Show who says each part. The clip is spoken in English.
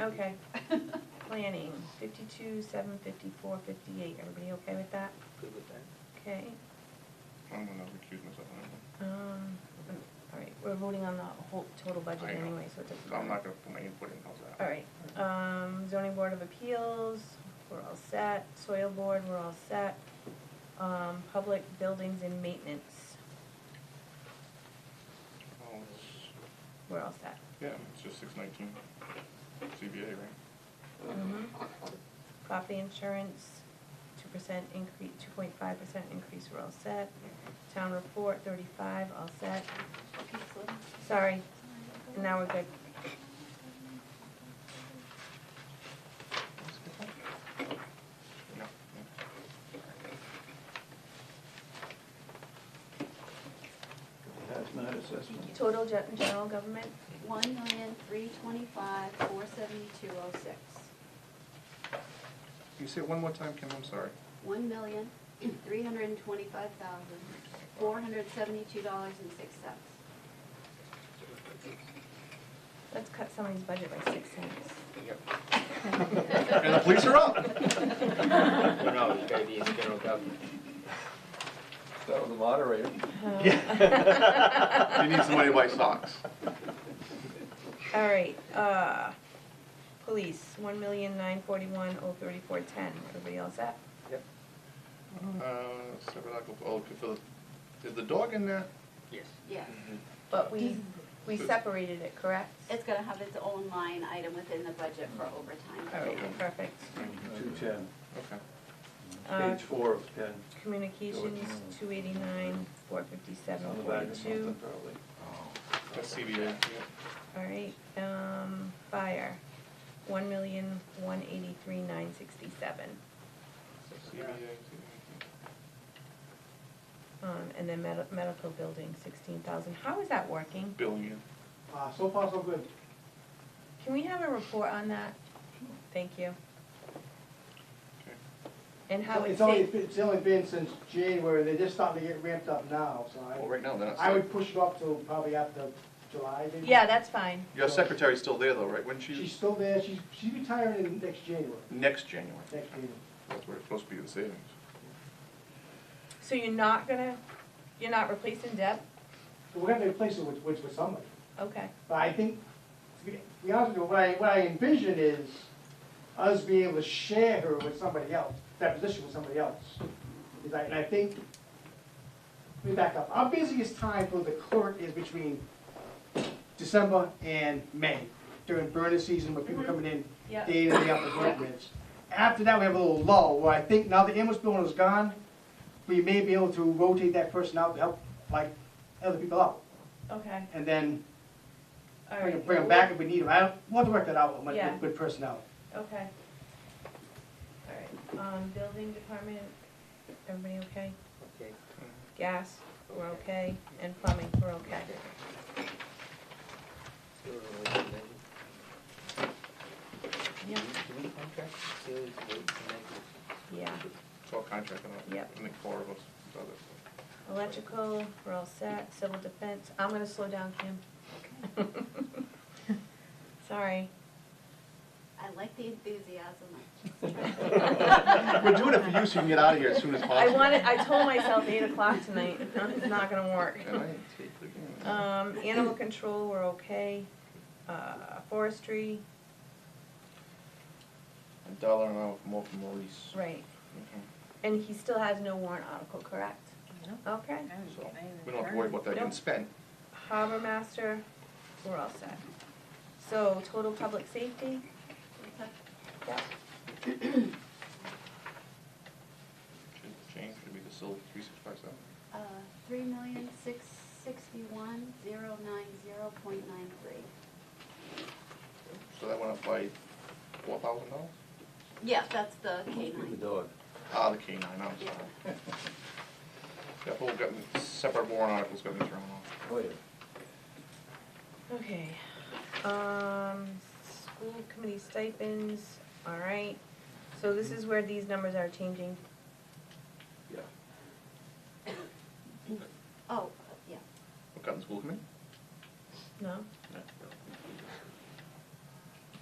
Speaker 1: Okay, planning, fifty-two, seven, fifty-four, fifty-eight, everybody okay with that?
Speaker 2: Good with that?
Speaker 1: Okay,
Speaker 3: I'm gonna recuse myself. on that one.
Speaker 1: um, all right, we're voting on the whole total budget
Speaker 3: I know.
Speaker 1: anyway, so it doesn't
Speaker 3: So I'm not
Speaker 1: matter.
Speaker 3: gonna put my input in, how's that?
Speaker 1: All right, um, zoning board of appeals, we're all set, soil board, we're all set, um, public buildings and maintenance,
Speaker 3: Well, Oh, it's-
Speaker 1: we're all set.
Speaker 3: Yeah, it's just six nineteen, CBA, right?
Speaker 1: Mhm. Property insurance, two percent increase, two point five percent increase, we're all set. Town report, thirty-five, all set. Sorry, and now we're good.
Speaker 3: No.
Speaker 2: That's not assessment.
Speaker 1: Total ge- general government,
Speaker 4: One million, three twenty-five, four seventy-two oh six.
Speaker 3: Can you say it one more time, Kim, I'm sorry?
Speaker 4: One million, three hundred and twenty-five thousand, four hundred seventy-two dollars and six cents.
Speaker 1: let's cut somebody's budget by six cents.
Speaker 3: And the police are up!
Speaker 2: Who
Speaker 5: No, it's gotta be in general government.
Speaker 2: That was the moderator.
Speaker 1: Oh.
Speaker 3: You need somebody to buy socks.
Speaker 1: All right, uh, police, one million, nine forty-one, oh thirty-four, ten, everybody all set?
Speaker 2: Yep.
Speaker 3: Uh, separate article, oh, could fill it- is the dog in there?
Speaker 5: Yes.
Speaker 4: Yeah,
Speaker 1: But we, we separated it, correct?
Speaker 4: it's gonna have its own line item within the budget for
Speaker 1: All
Speaker 4: overtime.
Speaker 1: right, perfect.
Speaker 2: Two ten,
Speaker 3: Okay.
Speaker 1: Uh,
Speaker 2: page four of ten.
Speaker 1: Communications, two eighty-nine, four fifty-seven,
Speaker 2: On the back of
Speaker 1: forty-two.
Speaker 2: something probably.
Speaker 3: That's CBA, yeah.
Speaker 1: All right, um, fire, one million, one eighty-three, nine sixty-seven.
Speaker 3: CBA, CBA.
Speaker 1: Um, and then med- medical building, sixteen thousand. How is that working?
Speaker 3: Billion.
Speaker 6: Uh, so far, so good.
Speaker 1: Can we have a report on that? Thank you.
Speaker 3: Okay.
Speaker 1: And how it
Speaker 6: It's only,
Speaker 1: saved,
Speaker 6: it's only been since January, they're just starting to get ramped up now, so
Speaker 3: Well,
Speaker 6: I,
Speaker 3: right now, they're not.
Speaker 6: I would push it up to probably after July, maybe.
Speaker 1: yeah, that's fine.
Speaker 3: Your secretary's still there though, right? When
Speaker 6: She's
Speaker 3: she,
Speaker 6: still there, she's, she's retiring in next January,
Speaker 3: next January.
Speaker 6: next January.
Speaker 3: That's where it's supposed to be, the savings.
Speaker 1: So you're not gonna, you're not replacing Deb?
Speaker 6: So we're gonna replace it with, with, with somebody.
Speaker 1: Okay,
Speaker 6: But I think, to be to be honest with you, what I, what I envision is us being able to share her with somebody else, that position with somebody else. Is I, and I think, let me back up, our busiest time for the clerk is between December and May, during burner season, with people coming in
Speaker 1: yeah.
Speaker 6: day in, day out with workers. After that, we have a little lull, where I think now the ambulance building is gone, we may be able to rotate that person out to help, like, other people out,
Speaker 1: Okay,
Speaker 6: and then
Speaker 1: all
Speaker 6: Bring
Speaker 1: right.
Speaker 6: them, bring 'em back if we need them. I don't, we'll have to work that out with,
Speaker 1: Yeah.
Speaker 6: with, with personnel.
Speaker 1: Okay. All right, um, building department, everybody okay?
Speaker 5: Okay.
Speaker 1: Gas, we're okay, and plumbing, we're okay.
Speaker 5: Sewer waste amendment.
Speaker 1: Yeah.
Speaker 5: Do we contract sewer waste amendment?
Speaker 1: Yeah,
Speaker 3: It's all contracted out.
Speaker 1: Yep.
Speaker 3: I think four of us, does it.
Speaker 1: electrical, we're all set, civil defense, I'm gonna slow down, Kim. Sorry.
Speaker 4: I like the enthusiasm.
Speaker 3: We're doing it for you so you can get out of here as soon as
Speaker 1: I
Speaker 3: possible.
Speaker 1: wanted, I told myself eight o'clock tonight, it's not gonna work.
Speaker 3: And I take the game.
Speaker 1: Um, animal control, we're okay, uh, forestry,
Speaker 3: A dollar an hour more for Maurice.
Speaker 1: right,
Speaker 3: Mhm.
Speaker 1: and he still has no warrant article, correct? No. Okay.
Speaker 3: So, we don't have to worry about that
Speaker 1: Nope.
Speaker 3: getting spent.
Speaker 1: Harbor Master, we're all set. So total public safety,
Speaker 3: Should Change should be the silver three six five seven.
Speaker 4: Uh, three million, six sixty-one, zero nine zero point nine three.
Speaker 3: So that went up by four thousand dollars?
Speaker 4: Yeah, that's the K
Speaker 2: Keep the
Speaker 4: nine.
Speaker 2: dog.
Speaker 3: Ah, the K nine, I'm sorry. That whole got, separate warrant articles got me thrown off.
Speaker 2: Oh, yeah.
Speaker 1: okay. Um, school committee stipends, all right. So this is where these numbers are changing.
Speaker 2: Yeah.
Speaker 4: Oh, yeah. Oh,
Speaker 3: What got in school committee?
Speaker 1: No,